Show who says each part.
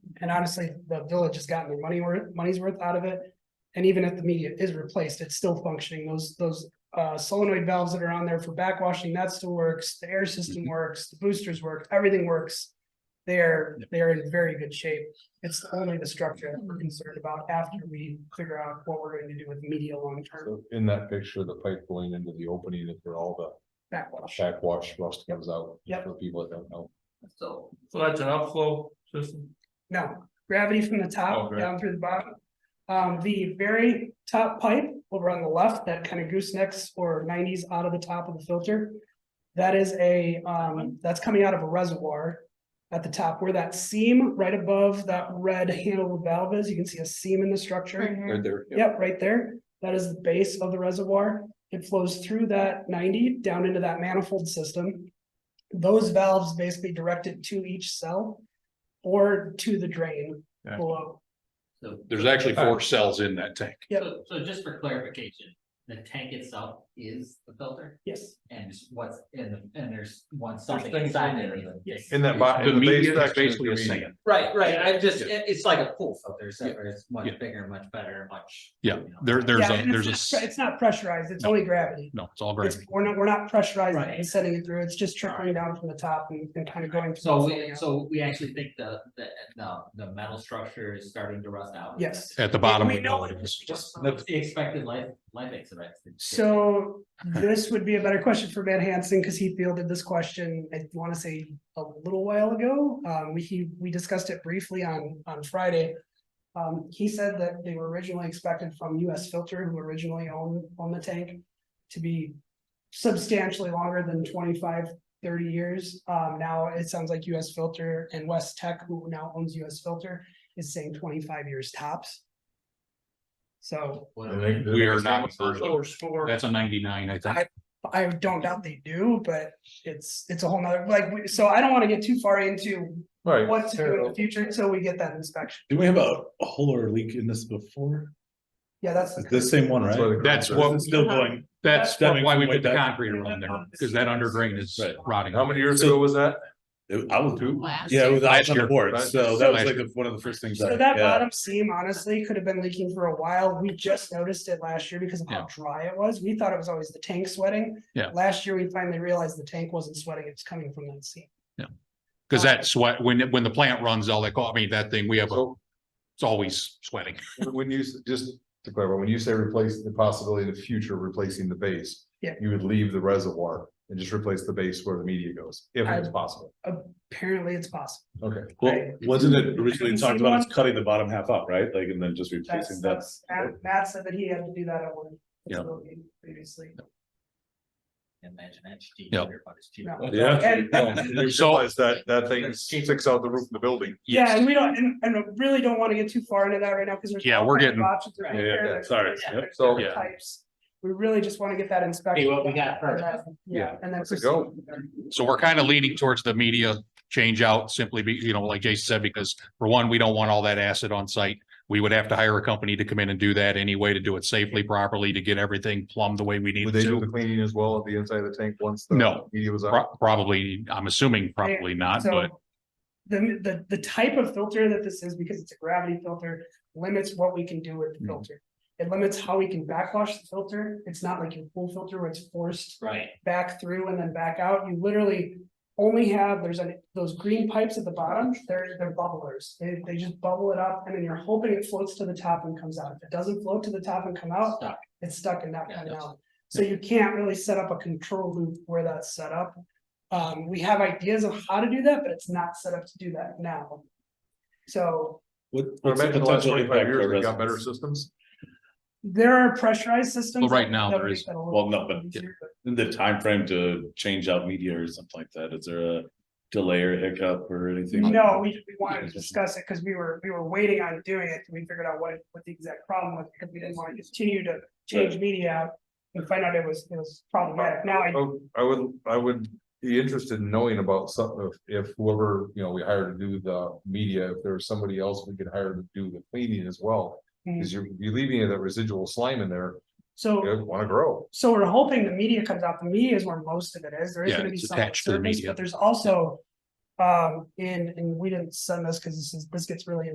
Speaker 1: And honestly, the village has gotten their money worth, money's worth out of it. And even if the media is replaced, it's still functioning. Those, those uh solenoid valves that are on there for backwashing, that still works. The air system works, the boosters work, everything works. They're, they're in very good shape. It's only the structure that we're concerned about after we figure out what we're going to do with media long term
Speaker 2: So In that picture, the pipe going into the opening is where all the
Speaker 1: backwash.
Speaker 2: shack wash rust comes out.
Speaker 1: Yep.
Speaker 2: For people that don't know.
Speaker 1: So
Speaker 3: So that's an upflow system.
Speaker 1: No, gravity from the
Speaker 3: Oh,
Speaker 1: top
Speaker 3: great.
Speaker 1: down through the bottom. Um, the very top pipe over on the left, that kind of goosenecks or nineties out of the top of the filter. That is a, um, that's coming out of a reservoir at the top where that seam right above that red handled valve is. You can see a seam in the structure.
Speaker 2: Right there.
Speaker 1: Yep, right there. That is the base of the reservoir. It flows through that ninety down into that manifold system. Those valves basically direct it to each cell or to the drain
Speaker 3: Yeah.
Speaker 1: below.
Speaker 4: So,
Speaker 5: There's actually four cells in that tank.
Speaker 1: Yep.
Speaker 4: so, so just for clarification, the tank itself is the filter
Speaker 1: Yes,
Speaker 4: and what's in the, and there's one
Speaker 3: There's
Speaker 4: something
Speaker 3: things in
Speaker 4: inside
Speaker 3: there.
Speaker 4: it.
Speaker 3: that-
Speaker 1: yes.
Speaker 2: In that bottom.
Speaker 5: The media is basically a sand.
Speaker 4: Right, right, I just,
Speaker 5: Yeah.
Speaker 4: it- it's like a pool filter, except for it's much
Speaker 5: Yeah.
Speaker 4: bigger, much better, much.
Speaker 5: Yeah,
Speaker 4: you know.
Speaker 5: there, there's
Speaker 1: Yeah,
Speaker 5: a,
Speaker 1: and
Speaker 5: there's a,
Speaker 1: it's not-
Speaker 5: s-
Speaker 1: It's not pressurized, it's
Speaker 5: No.
Speaker 1: only gravity.
Speaker 5: no, it's all
Speaker 1: It's,
Speaker 5: gravity.
Speaker 1: we're not, we're not pressurizing
Speaker 4: Right.
Speaker 1: and sending it through, it's just trickling down from the top and, and kind of going.
Speaker 4: So
Speaker 1: through
Speaker 4: we,
Speaker 1: the-
Speaker 4: so we actually think the, the, the, the metal structure is starting to rust out.
Speaker 1: Yes.
Speaker 5: At the bottom.
Speaker 1: We
Speaker 5: we
Speaker 1: know
Speaker 5: know
Speaker 1: it
Speaker 5: it is.
Speaker 4: Just the expected life, life expectancy.
Speaker 1: So this would be a better question for Matt Hansen, because he fielded this question, I want to say a little while ago. Um, we, he, we discussed it briefly on, on Friday. Um, he said that they were originally expected from US Filter, who originally owned, owned the tank, to be substantially longer than 25, 30 years. Um, now it sounds like US Filter and West Tech, who now owns US Filter, is saying twenty-five years tops. So
Speaker 5: We are not,
Speaker 3: Source for.
Speaker 5: that's a ninety-nine, I think.
Speaker 1: I don't doubt they do, but it's, it's a whole nother, like, we- so I don't wanna get too far into
Speaker 2: Right,
Speaker 1: what to do in the future until we get that inspection.
Speaker 6: Did we have a a hole or a leak in this before?
Speaker 1: Yeah, that's,
Speaker 6: It's the same one,
Speaker 2: That's why
Speaker 6: right?
Speaker 2: they-
Speaker 5: That's
Speaker 6: This
Speaker 5: what,
Speaker 6: is Still going,
Speaker 5: that's
Speaker 6: Stemming
Speaker 5: why we
Speaker 6: from way
Speaker 5: put the
Speaker 6: back.
Speaker 5: concrete around there, because that under drain is
Speaker 6: Right.
Speaker 5: rotting.
Speaker 2: how many years ago was that?
Speaker 6: I was,
Speaker 2: Two?
Speaker 6: yeah, it was I was
Speaker 5: Last
Speaker 6: on the
Speaker 5: year.
Speaker 6: board,
Speaker 2: Last
Speaker 6: so
Speaker 2: year.
Speaker 6: that was
Speaker 5: Last
Speaker 6: like the- one of the first things. I
Speaker 1: so that
Speaker 6: yeah.
Speaker 1: bottom seam honestly could have been leaking for a while. We just noticed it last year because of how
Speaker 5: Yeah.
Speaker 1: dry it was. We thought it was always the tank sweating.
Speaker 5: Yeah.
Speaker 1: Last year, we finally realized the tank wasn't sweating, it was coming from that seam.
Speaker 5: Because that sweat, when, it- when the plant runs, all they call, I mean, that thing, we have, a
Speaker 2: So
Speaker 5: it's always sweating.
Speaker 2: when you, s- just to clarify, when you say replace the possibility of the future replacing the base.
Speaker 1: Yeah.
Speaker 2: You would leave the reservoir and just replace the base where the media goes, if it's possible.
Speaker 1: Apparently, it's possible.
Speaker 2: Okay.
Speaker 6: Well,
Speaker 1: Right.
Speaker 6: wasn't it originally
Speaker 1: Haven't
Speaker 6: talked
Speaker 1: seen
Speaker 6: about as
Speaker 1: one.
Speaker 6: cutting the bottom half up, right? Like, and then just replacing
Speaker 1: That's,
Speaker 6: that.
Speaker 1: that's, Matt- Matt said that he had to do that at one.
Speaker 6: Yeah.
Speaker 1: facility Previously.
Speaker 4: Imagine that's cheap.
Speaker 5: Yep.
Speaker 4: but it's cheap.
Speaker 1: No.
Speaker 6: Yeah.
Speaker 1: And-
Speaker 5: So-
Speaker 2: Realize that, that thing sticks out the roof of the building.
Speaker 1: Yeah, and we don't, and, and I really don't wanna get too far into that right now, cause there's.
Speaker 5: Yeah,
Speaker 1: all
Speaker 5: we're
Speaker 1: kinds of
Speaker 5: getting-
Speaker 1: options right
Speaker 6: Yeah, yeah,
Speaker 1: there.
Speaker 6: yeah,
Speaker 1: There's
Speaker 6: sorry.
Speaker 1: different-
Speaker 6: Yep.
Speaker 1: there's
Speaker 2: So-
Speaker 1: different Types. We really just wanna get that inspection.
Speaker 4: Hey, what we
Speaker 1: done,
Speaker 4: got first.
Speaker 1: and then- Yeah, and then.
Speaker 2: Let's go.
Speaker 1: proceed.
Speaker 5: So we're kind of leaning towards the media change out simply be, you know, like Jason said, because for one, we don't want all that acid on site. We would have to hire a company to come in and do that anyway, to do it safely, properly, to get everything plumbed the way we need
Speaker 2: Would they do the
Speaker 5: to.
Speaker 2: cleaning as well at the inside of the tank once? the
Speaker 5: No.
Speaker 2: Media was out?
Speaker 5: Pro- Probably, I'm assuming probably not,
Speaker 1: So,
Speaker 5: but
Speaker 1: The, the, the type of filter that this is, because it's a gravity filter, limits what we can do with the
Speaker 5: Mhm.
Speaker 1: filter. It limits how we can backwash the filter. It's not like your pool filter where it's forced
Speaker 4: Right,
Speaker 1: back through and then back out. You literally only have, there's an those green pipes at the bottom, they're, they're bubblers. They, they just bubble it up and then you're hoping it floats to the top and comes out. If it doesn't float to the top and come out,
Speaker 4: Stuck.
Speaker 1: it's stuck and not
Speaker 4: Yeah,
Speaker 1: coming
Speaker 4: that's-
Speaker 1: out. So you can't really set up a control loop where that's set up. Um, we have ideas of how to do that, but it's not set up to do that now. So
Speaker 6: What,
Speaker 2: I
Speaker 6: what's the
Speaker 2: imagine the last
Speaker 6: potential
Speaker 2: twenty-five
Speaker 6: impact to
Speaker 2: years, we got better
Speaker 6: residents?
Speaker 2: systems.
Speaker 1: there are pressurized systems.
Speaker 5: Well, right now
Speaker 1: that
Speaker 5: there
Speaker 1: make
Speaker 5: is-
Speaker 1: that a little
Speaker 6: Well, no, but
Speaker 1: easier, but
Speaker 6: the time frame to change out media or something like that, is there a delay or hiccup or anything? like
Speaker 1: No,
Speaker 6: that?
Speaker 1: we, we wanted to discuss it because we were, we were waiting on doing it. till We figured out what, what the exact problem was because we didn't want to continue to change media out and find out it was, it was problematic. Now I,
Speaker 2: Oh, I would, I would be interested in knowing about something if if whoever, you know, we hire to do the media, if there was somebody else we could hire to do the cleaning as well. Cause you're, you're leaving that residual slime in there,
Speaker 1: mm, so.
Speaker 2: it wanna grow.
Speaker 1: So we're hoping the media comes out, the media is where most of it is, there is
Speaker 5: Yeah,
Speaker 1: gonna be
Speaker 5: it's
Speaker 1: some on
Speaker 5: attached to the
Speaker 1: surface,
Speaker 5: media.
Speaker 1: but there's also. Um, in, and we didn't send this, cause this is, this gets really